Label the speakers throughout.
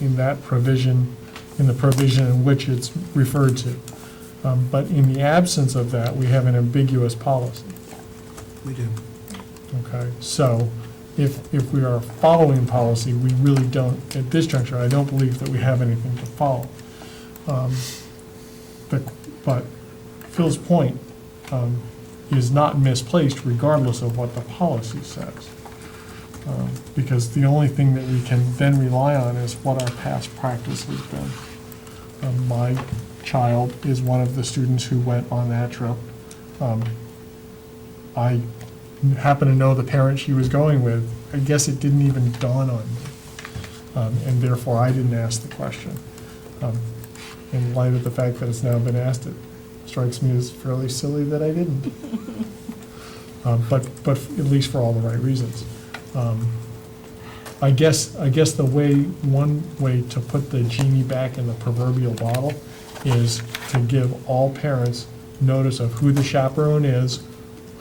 Speaker 1: reflecting that provision in the provision in which it's referred to. Um, But in the absence of that, we have an ambiguous policy.
Speaker 2: We do.
Speaker 1: Okay, so if, if we are following policy, we really don't, at this juncture, I don't believe that we have anything to follow. Um, But, but Phil's point um, is not misplaced regardless of what the policy says. Um, Because the only thing that we can then rely on is what our past practice has been. Um, My child is one of the students who went on that trip. Um, I happen to know the parent she was going with, I guess it didn't even dawn on me. Um, And therefore, I didn't ask the question. Um, In light of the fact that it's now been asked, it strikes me as fairly silly that I didn't. Um, But, but at least for all the right reasons. Um, I guess, I guess the way, one way to put the genie back in the proverbial bottle is to give all parents notice of who the chaperone is,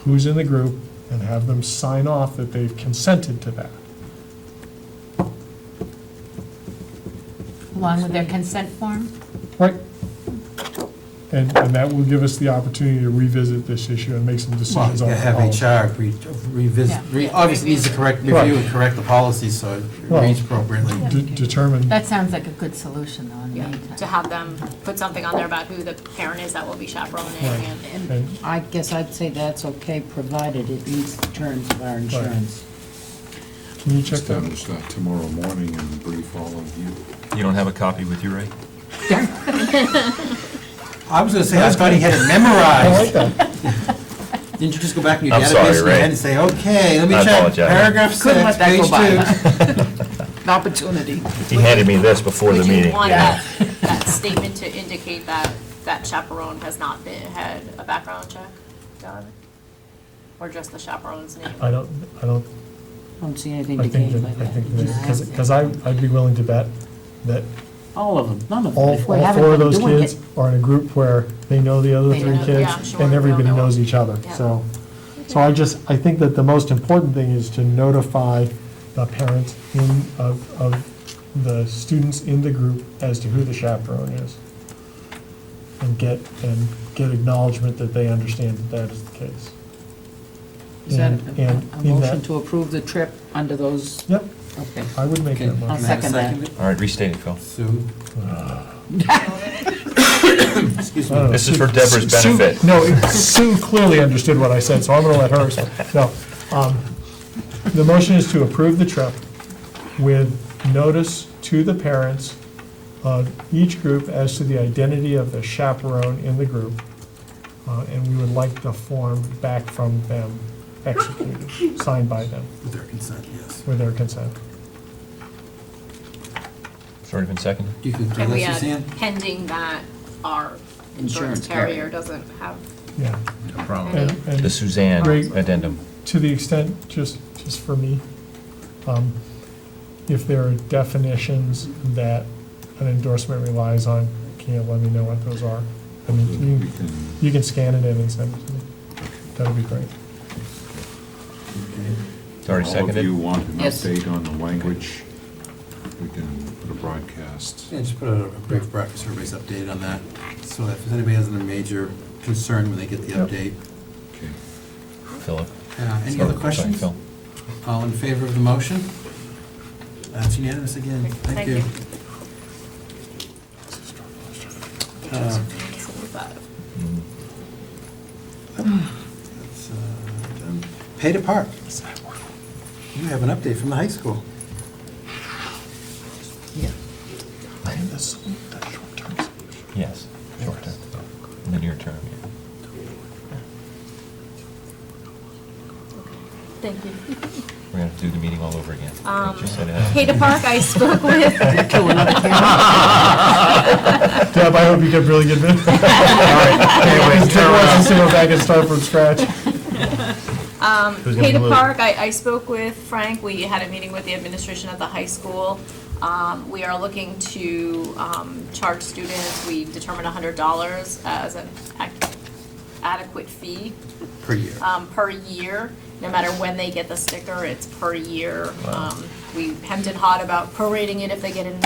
Speaker 1: who's in the group, and have them sign off that they've consented to that.
Speaker 3: Along with their consent form?
Speaker 1: Right. And, and that will give us the opportunity to revisit this issue and make some
Speaker 2: Well,
Speaker 1: decisions
Speaker 2: you
Speaker 1: on
Speaker 2: have
Speaker 1: it.
Speaker 2: HR re- revisit,
Speaker 3: Yeah.
Speaker 2: re- obviously needs to correct,
Speaker 1: Right.
Speaker 2: review and correct the policy so it
Speaker 1: Well,
Speaker 2: reads appropriately.
Speaker 1: De- Determine,
Speaker 3: That sounds like a good solution, though, in the
Speaker 4: Yeah, to
Speaker 3: meantime.
Speaker 4: have them put something on there about who the parent is that will be chaperoning and.
Speaker 1: and,
Speaker 5: I guess I'd say that's okay, provided it meets the terms of our insurance.
Speaker 1: can you check that?
Speaker 6: establish that tomorrow morning and brief all of you.
Speaker 7: You don't have a copy with you, right?
Speaker 2: I was gonna say, I thought he had it memorized.
Speaker 1: that.
Speaker 2: Didn't you just go back in your
Speaker 7: I'm sorry,
Speaker 2: database in your
Speaker 7: Ray.
Speaker 2: head and say, okay, let me
Speaker 7: I
Speaker 2: check,
Speaker 7: apologize.
Speaker 2: paragraph
Speaker 5: Couldn't
Speaker 2: six,
Speaker 5: let that go
Speaker 2: page two.
Speaker 5: by. An opportunity.
Speaker 7: He handed me this before the
Speaker 4: Would you
Speaker 7: meeting.
Speaker 4: want that, that statement to indicate that, that chaperone has not been, had a background check done? Or just the chaperone's name?
Speaker 1: I don't, I don't,
Speaker 5: Don't see anything
Speaker 1: I
Speaker 5: to
Speaker 1: think,
Speaker 5: gain by
Speaker 1: that- I think,
Speaker 5: that.
Speaker 1: because, because I, I'd be willing to bet that
Speaker 5: All of them, none of them.
Speaker 1: all,
Speaker 5: If we
Speaker 1: all
Speaker 5: haven't
Speaker 1: four of
Speaker 5: been
Speaker 1: those
Speaker 5: doing
Speaker 1: kids
Speaker 5: it-
Speaker 1: are in a group where they know the other
Speaker 5: They
Speaker 1: three
Speaker 5: know-
Speaker 4: yeah, I'm
Speaker 1: kids,
Speaker 4: sure
Speaker 1: and
Speaker 4: they'll
Speaker 1: everybody
Speaker 4: know.
Speaker 1: knows each other,
Speaker 4: Yeah.
Speaker 1: so. So I just, I think that the most important thing is to notify the parents in, of, of the students in the group as to who the chaperone is. And get, and get acknowledgement that they understand that that is the case.
Speaker 5: Is that
Speaker 1: And-
Speaker 5: a-
Speaker 1: and
Speaker 5: a
Speaker 1: in
Speaker 5: motion
Speaker 1: that-
Speaker 5: to approve the trip under those?
Speaker 1: Yep,
Speaker 5: Okay.
Speaker 1: I would make
Speaker 2: Okay,
Speaker 1: that
Speaker 2: can I
Speaker 5: I'll
Speaker 1: motion.
Speaker 2: have a
Speaker 5: second that.
Speaker 2: it?
Speaker 7: All right, restate it, Phil.
Speaker 2: Sue,
Speaker 1: Uh.
Speaker 2: excuse
Speaker 1: I don't know.
Speaker 2: me.
Speaker 7: This is for Deborah's
Speaker 1: Sue-
Speaker 7: benefit.
Speaker 1: No, it- Sue clearly understood what I said, so I'm going to let her, explain. no. um, The motion is to approve the trip with notice to the parents of each group as to the identity of the chaperone in the group, uh, and we would like the form back from them executed, signed by them,
Speaker 2: With their consent, yes.
Speaker 1: with their consent.
Speaker 7: It's already been seconded.
Speaker 2: You could do
Speaker 4: Can we
Speaker 2: this,
Speaker 4: add
Speaker 2: Suzanne?
Speaker 4: pending that our
Speaker 5: Insurance
Speaker 4: insurance
Speaker 5: carrier.
Speaker 4: carrier doesn't have
Speaker 1: Yeah.
Speaker 4: any?
Speaker 1: And- and-
Speaker 7: The Suzanne
Speaker 1: Great.
Speaker 7: addendum.
Speaker 1: to the extent, just, just for me, um, if there are definitions that an endorsement relies on, can you let me know what those are? I
Speaker 7: Hmm.
Speaker 1: mean,
Speaker 6: We
Speaker 1: you,
Speaker 6: can,
Speaker 1: you can scan it in and send it to me. That'd be great.
Speaker 7: It's already
Speaker 6: all of you
Speaker 7: seconded.
Speaker 6: want an
Speaker 5: Yes.
Speaker 6: update on the language, we can put a broadcast.
Speaker 2: Yeah, just put out a brief breakfast, everybody's updated on that. So if anybody has any major concern when they get the
Speaker 1: Yep.
Speaker 2: update.
Speaker 6: Okay.
Speaker 2: Uh,
Speaker 7: Philip.
Speaker 2: Any
Speaker 7: Sorry,
Speaker 2: other
Speaker 7: sorry,
Speaker 2: questions?
Speaker 7: Phil.
Speaker 2: All in favor of the motion? That's unanimous again. Thank
Speaker 4: Thank
Speaker 2: you.
Speaker 4: you.
Speaker 2: Uh,
Speaker 4: But-
Speaker 7: Mm.
Speaker 2: that's, uh, done. Pay to park. You have an update from the high school.
Speaker 7: Yes, short term. In the near term, yeah.
Speaker 4: Thank you.
Speaker 7: We're gonna have to do the meeting all over again.
Speaker 4: Um,
Speaker 7: You just said it has-
Speaker 4: Kata Park, I spoke with.
Speaker 1: Deb, I hope you get really good minutes. All right, anyways. Deb wants us to go back and start from scratch.
Speaker 7: Who's gonna be
Speaker 4: Peta
Speaker 7: Lou?
Speaker 4: Park, I, I spoke with Frank, we had a meeting with the administration at the high school. Um, we are looking to, um, charge students, we determined hundred dollars as an ac- adequate fee,
Speaker 2: Per year.
Speaker 4: um, per year. No matter when they get the sticker, it's per year. Um, we hemmed and hawed about prorating it if they get it in